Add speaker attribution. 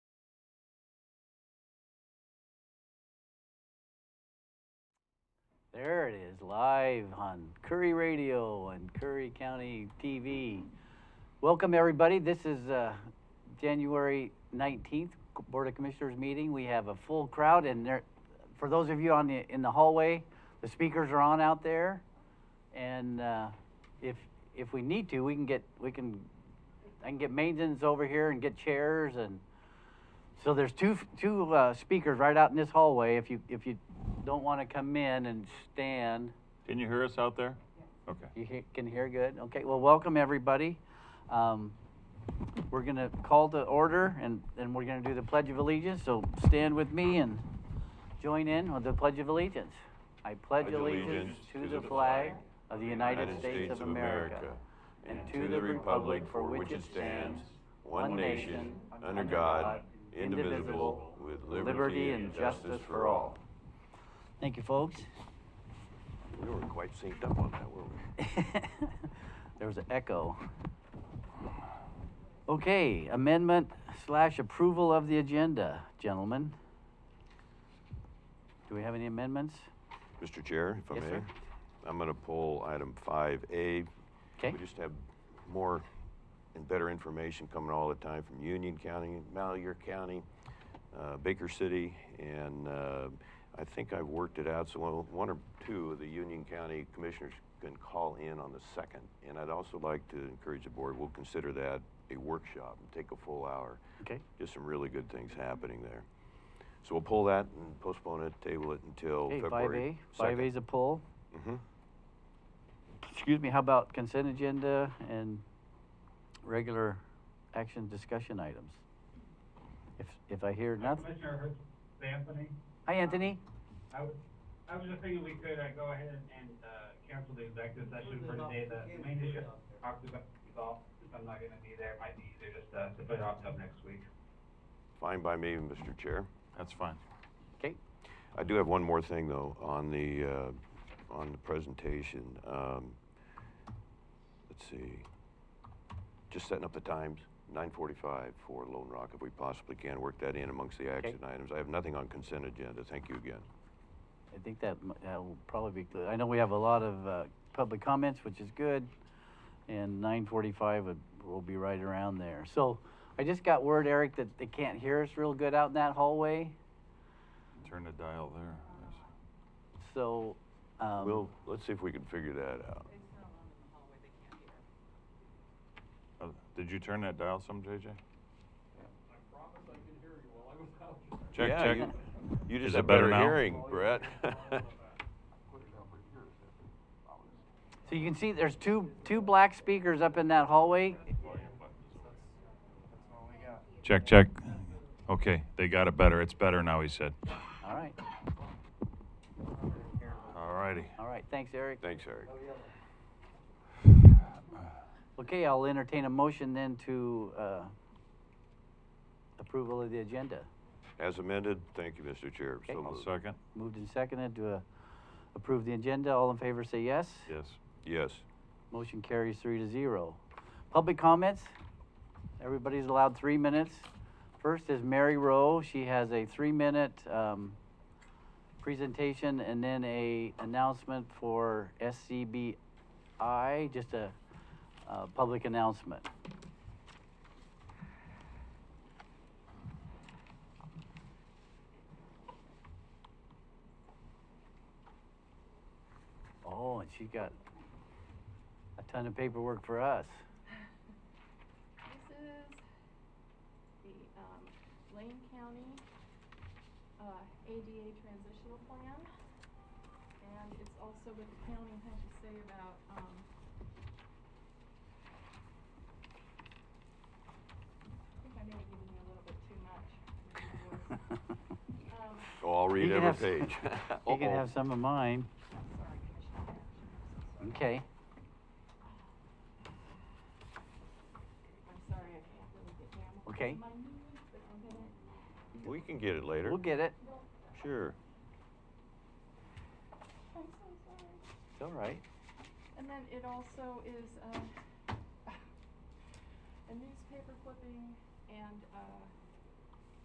Speaker 1: There it is, live on Curry Radio and Curry County TV. Welcome, everybody. This is uh, January 19th Board of Commissioners meeting. We have a full crowd, and there, for those of you on the, in the hallway, the speakers are on out there. And uh, if, if we need to, we can get, we can, I can get maintenance over here and get chairs and so there's two two uh, speakers right out in this hallway. If you if you don't want to come in and stand,
Speaker 2: Can you hear us out there? Okay.
Speaker 1: you he- can hear good. Okay. Well, welcome everybody. Um, we're gonna call to order and and we're gonna do the pledge of allegiance. So stand with me and join in with the pledge of allegiance. I pledge allegiance to the flag of the United States of America and to the republic for which it stands, one nation under God, indivisible, with liberty and justice for all. Thank you, folks.
Speaker 3: We were quite synced up on that, weren't we?
Speaker 1: there was an echo. Okay, amendment slash approval of the agenda, gentlemen. Do we have any amendments?
Speaker 3: Mr. Chair, if I
Speaker 1: Yes,
Speaker 3: may,
Speaker 1: sir.
Speaker 3: I'm going to pull item 5A.
Speaker 1: Okay.
Speaker 3: We just have more and better information coming all the time from Union County, Malheur County, uh, Baker City, and uh, I think I've worked it out, so one- one or two of the Union County commissioners can call in on the second. And I'd also like to encourage the board, we'll consider that a workshop and take a full hour.
Speaker 1: Okay.
Speaker 3: Just some really good things happening there. So we'll pull that and postpone it, table it until
Speaker 1: Okay, five A,
Speaker 3: February
Speaker 1: five A's a pull.
Speaker 3: Mm-hmm.
Speaker 1: Excuse me, how about consent agenda and regular action discussion items? If, if I hear
Speaker 4: Uh,
Speaker 1: nothing,
Speaker 4: Commissioner Hertz, it's Anthony,
Speaker 1: hi, Anthony?
Speaker 4: I was, I was just thinking we could, uh, go ahead and, uh, cancel the executive session for today, the main issue, talked about resolved, since I'm not gonna be there, it might be easier just, uh, to put it off till next week.
Speaker 3: Fine by me, Mr. Chair.
Speaker 2: That's fine.
Speaker 1: Okay,
Speaker 3: I do have one more thing though on the uh, on the presentation. Um, let's see. Just setting up the times. 9:45 for Lone Rock, if we possibly can work that in amongst the action items. I have nothing on consent agenda. Thank you again.
Speaker 1: I think that, m- that will probably be good. I know we have a lot of, uh, public comments, which is good. And nine forty-five would, will be right around there. So I just got word, Eric, that they can't hear us real good out in that hallway,
Speaker 2: Turn the dial there. Yes.
Speaker 1: so, um.
Speaker 3: we'll let's see if we can figure that out.
Speaker 2: Uh, Did you turn that dial some, JJ? I promise
Speaker 3: yeah,
Speaker 2: I could hear you while I was out. Check, check.
Speaker 3: You, you just
Speaker 2: Is
Speaker 3: have
Speaker 2: it better
Speaker 3: better,
Speaker 2: now?
Speaker 3: hearing, Brett.
Speaker 1: So you can see there's two, two black speakers up in that hallway.
Speaker 2: Check, check. Okay, they got it better. It's better now, he said.
Speaker 1: All right,
Speaker 2: All righty.
Speaker 1: all right, thanks, Eric.
Speaker 3: Thanks, Eric.
Speaker 1: Oh, Okay, I'll entertain a motion then to, uh, approval of the agenda.
Speaker 3: As amended, thank you, Mr. Chair. So
Speaker 1: Okay.
Speaker 2: I'll
Speaker 3: moved.
Speaker 2: second.
Speaker 1: Moved and seconded to, uh, approve the agenda. All in favor, say yes.
Speaker 2: Yes.
Speaker 3: Yes.
Speaker 1: Motion carries three to zero. Public comments? Everybody's allowed three minutes. First is Mary Rowe. She has a three-minute um, presentation and then a announcement for SCBI, just a uh, public announcement. Oh, and she got a ton of paperwork for us.
Speaker 5: This is the um, Lane County uh, ADA transitional plan. And it's also what the county had to say about um, I think I may have given you a little bit too much. Um,
Speaker 3: Oh, I'll read
Speaker 1: You can
Speaker 3: every
Speaker 1: have-
Speaker 3: page.
Speaker 1: You can
Speaker 3: Uh-oh.
Speaker 1: have some of mine.
Speaker 5: Sorry, Commissioner. Patterson.
Speaker 1: Okay.
Speaker 5: I'm sorry, I can't really get down. with
Speaker 1: Okay.
Speaker 5: my knees, but I'm gonna
Speaker 3: We can get it later.
Speaker 1: We'll get it.
Speaker 3: Sure.
Speaker 5: I'm so sorry.
Speaker 1: It's all right.
Speaker 5: And then it also is um, a newspaper clipping and uh,